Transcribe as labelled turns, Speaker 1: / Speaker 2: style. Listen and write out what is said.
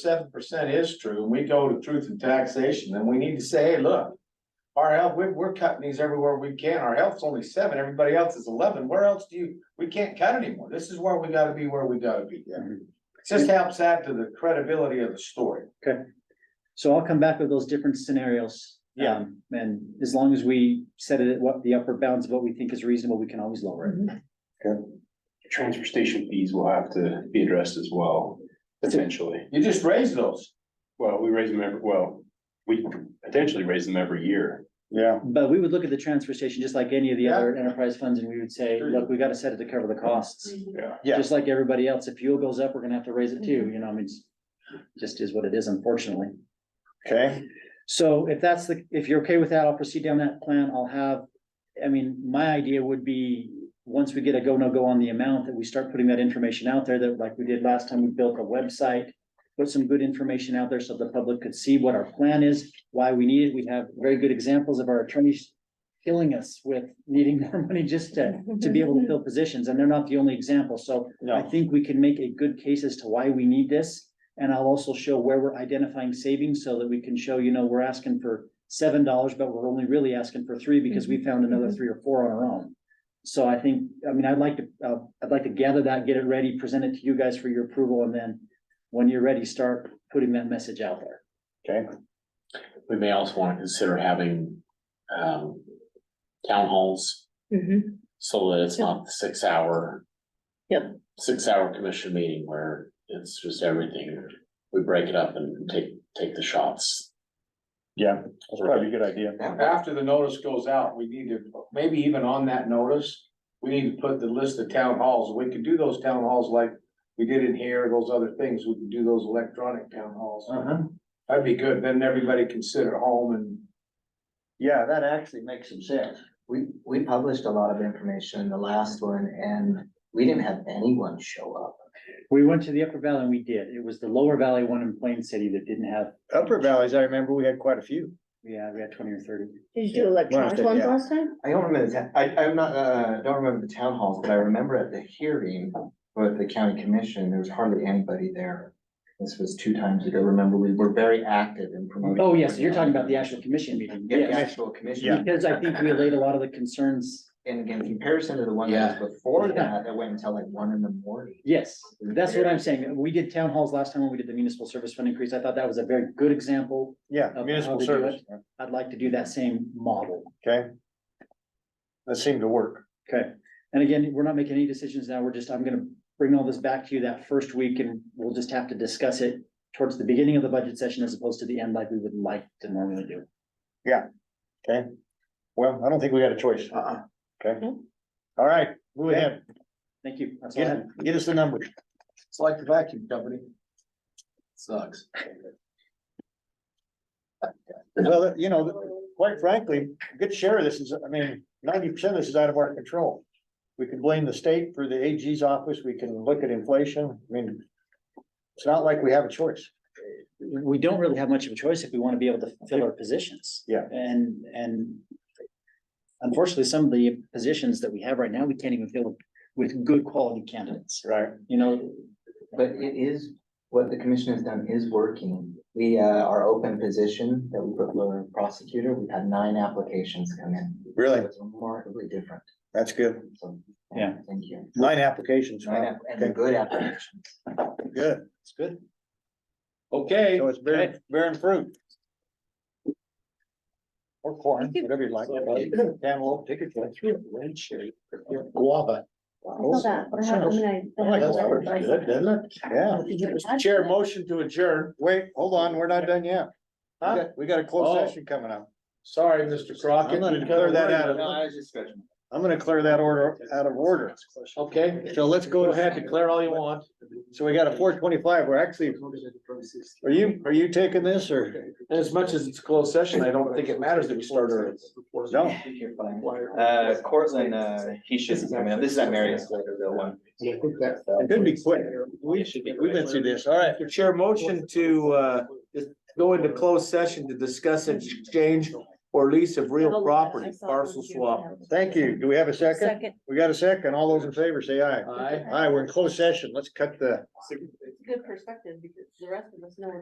Speaker 1: seven percent is true, and we go to truth and taxation, then we need to say, hey, look. Our health, we're, we're cutting these everywhere we can. Our health's only seven, everybody else is eleven. Where else do you, we can't cut anymore. This is where we gotta be, where we gotta be.
Speaker 2: Mhm.
Speaker 1: Just helps add to the credibility of the story.
Speaker 2: So I'll come back with those different scenarios.
Speaker 1: Yeah.
Speaker 2: Um, And as long as we set it at what the upper bounds of what we think is reasonable, we can always lower it.
Speaker 3: Transfer station fees will have to be addressed as well, potentially.
Speaker 1: You just raise those.
Speaker 3: Well, we raise them every, well, we potentially raise them every year.
Speaker 1: Yeah.
Speaker 2: But we would look at the transfer station just like any of the
Speaker 1: Yeah.
Speaker 2: other enterprise funds and we would say,
Speaker 1: Sure.
Speaker 2: look, we gotta set it to cover the costs.
Speaker 1: Yeah.
Speaker 2: Just like everybody else, if fuel goes up, we're gonna have to raise it too, you know, I mean, it's just is what it is unfortunately.
Speaker 1: Okay.
Speaker 2: So if that's the, if you're okay with that, I'll proceed down that plan. I'll have, I mean, my idea would be, once we get a go, no go on the amount, that we start putting that information out there that like we did last time, we built a website. Put some good information out there so the public could see what our plan is, why we need it. We have very good examples of our attorneys killing us with needing more money just to, to be able to fill positions, and they're not the only example. So I
Speaker 1: No,
Speaker 2: think we can make a good case as to why we need this. And I'll also show where we're identifying savings so that we can show, you know, we're asking for seven dollars, but we're only really asking for three because we found another three or four on our own. So I think, I mean, I'd like to, uh, I'd like to gather that, get it ready, present it to you guys for your approval, and then when you're ready, start putting that message out there.
Speaker 4: We may also want to consider having, um, town halls
Speaker 5: Mhm.
Speaker 4: so that it's not the six hour.
Speaker 5: Yep.
Speaker 4: Six hour commission meeting where it's just everything. We break it up and take, take the shots.
Speaker 3: Yeah, that's probably a good idea.
Speaker 1: after the notice goes out, we need to, maybe even on that notice, we need to put the list of town halls. We could do those town halls like we did in here, those other things. We could do those electronic town halls.
Speaker 6: Uh-huh,
Speaker 1: That'd be good, then everybody can sit at home and,
Speaker 6: yeah, that actually makes some sense.
Speaker 7: We, we published a lot of information in the last one and we didn't have anyone show up.
Speaker 2: We went to the Upper Valley and we did. It was the Lower Valley one in Plain City that didn't have,
Speaker 6: Upper Valleys, I remember we had quite a few.
Speaker 2: yeah, we had twenty or thirty.
Speaker 5: Did you do electronic
Speaker 6: Yeah.
Speaker 5: ones last time?
Speaker 7: I don't remember, the ta- I, I'm not, uh, don't remember the town halls, but I remember at the hearing with the county commission, there was hardly anybody there. This was two times ago. Remember, we were very active in promoting.
Speaker 2: Oh, yes, you're talking about the actual commission meeting.
Speaker 7: Yeah, the
Speaker 2: Yes.
Speaker 7: actual commission.
Speaker 2: Because I think we laid a lot of the concerns
Speaker 7: And again, comparison to the one that was before that, that went until like one in the morning.
Speaker 2: Yes, that's what I'm saying. We did town halls last time when we did the municipal service fund increase. I thought that was a very good example.
Speaker 6: Yeah,
Speaker 2: of how
Speaker 6: municipal
Speaker 2: they do
Speaker 6: service,
Speaker 2: I'd like to do that same model.
Speaker 6: okay? That seemed to work.
Speaker 2: Okay. And again, we're not making any decisions now. We're just, I'm gonna bring all this back to you that first week and we'll just have to discuss it towards the beginning of the budget session as opposed to the end like we would like to normally do.
Speaker 6: Well, I don't think we had a choice.
Speaker 2: Uh-uh.
Speaker 6: Okay.
Speaker 5: No.
Speaker 6: All right, move ahead,
Speaker 2: Thank you. That's all I
Speaker 6: get,
Speaker 2: have.
Speaker 6: get us the numbers.
Speaker 1: it's like the vacuum company. Sucks.
Speaker 6: Well, that- you know, quite frankly, a good share of this is, I mean, ninety percent of this is out of our control. We can blame the state for the AG's office, we can look at inflation, I mean, it's not like we have a choice.
Speaker 2: We don't really have much of a choice if we want to be able to fill our positions.
Speaker 6: Yeah.
Speaker 2: And, and unfortunately, some of the positions that we have right now, we can't even fill with good quality candidates.
Speaker 6: Right.
Speaker 2: you know.
Speaker 7: But it is, what the commission has done is working. We, uh, our open position that we put for prosecutor, we've had nine applications come in.
Speaker 6: Really?
Speaker 7: It's remarkably different,
Speaker 6: That's good.
Speaker 7: so.
Speaker 2: Yeah.
Speaker 7: Thank you.
Speaker 6: Nine applications.
Speaker 7: Nine
Speaker 6: wow.
Speaker 7: app- And they're good applications.
Speaker 6: Good.
Speaker 2: It's good.
Speaker 1: Okay,
Speaker 6: So it's bearing, bearing fruit. Or corn, whatever you like. Cantaloupe, take your choice.
Speaker 4: Guava.
Speaker 5: I saw that. What happened? I- I-
Speaker 6: That's
Speaker 5: I-
Speaker 6: Yeah,
Speaker 1: chair motion to adjourn.
Speaker 6: wait, hold on, we're not done yet. We
Speaker 1: Huh?
Speaker 6: got- We got a
Speaker 1: Oh.
Speaker 6: closed session coming up.
Speaker 1: Sorry, Mr. Crockett.
Speaker 6: I'm gonna clear that out
Speaker 7: No,
Speaker 6: of,
Speaker 7: I was just stretching.
Speaker 6: I'm gonna clear that order out of order.
Speaker 1: Okay,
Speaker 6: So let's
Speaker 1: go
Speaker 6: go
Speaker 1: ahead,
Speaker 6: ahead.
Speaker 1: declare all you want.
Speaker 6: So we got a four twenty-five. We're actually, are you, are you taking this or?
Speaker 1: As much as it's a closed session, I don't think it matters that we start early.
Speaker 6: No.
Speaker 7: You're fine. Uh, Cortland, uh, he should be coming up. This is at Marriott's later, the one.
Speaker 6: It could be quick. We should, we've been through this. All right.
Speaker 1: The chair motion to, uh, just go into closed session to discuss exchange or lease of
Speaker 5: Have
Speaker 1: real
Speaker 5: a-
Speaker 1: property,
Speaker 5: I saw it on
Speaker 1: parcel
Speaker 5: here.
Speaker 1: swap.
Speaker 6: Thank you. Do we have a second?
Speaker 5: Second.
Speaker 6: We got a second. All those in favor say aye.
Speaker 1: Aye.
Speaker 6: Aye, we're in closed session. Let's cut the.
Speaker 5: It's good perspective because the rest of us know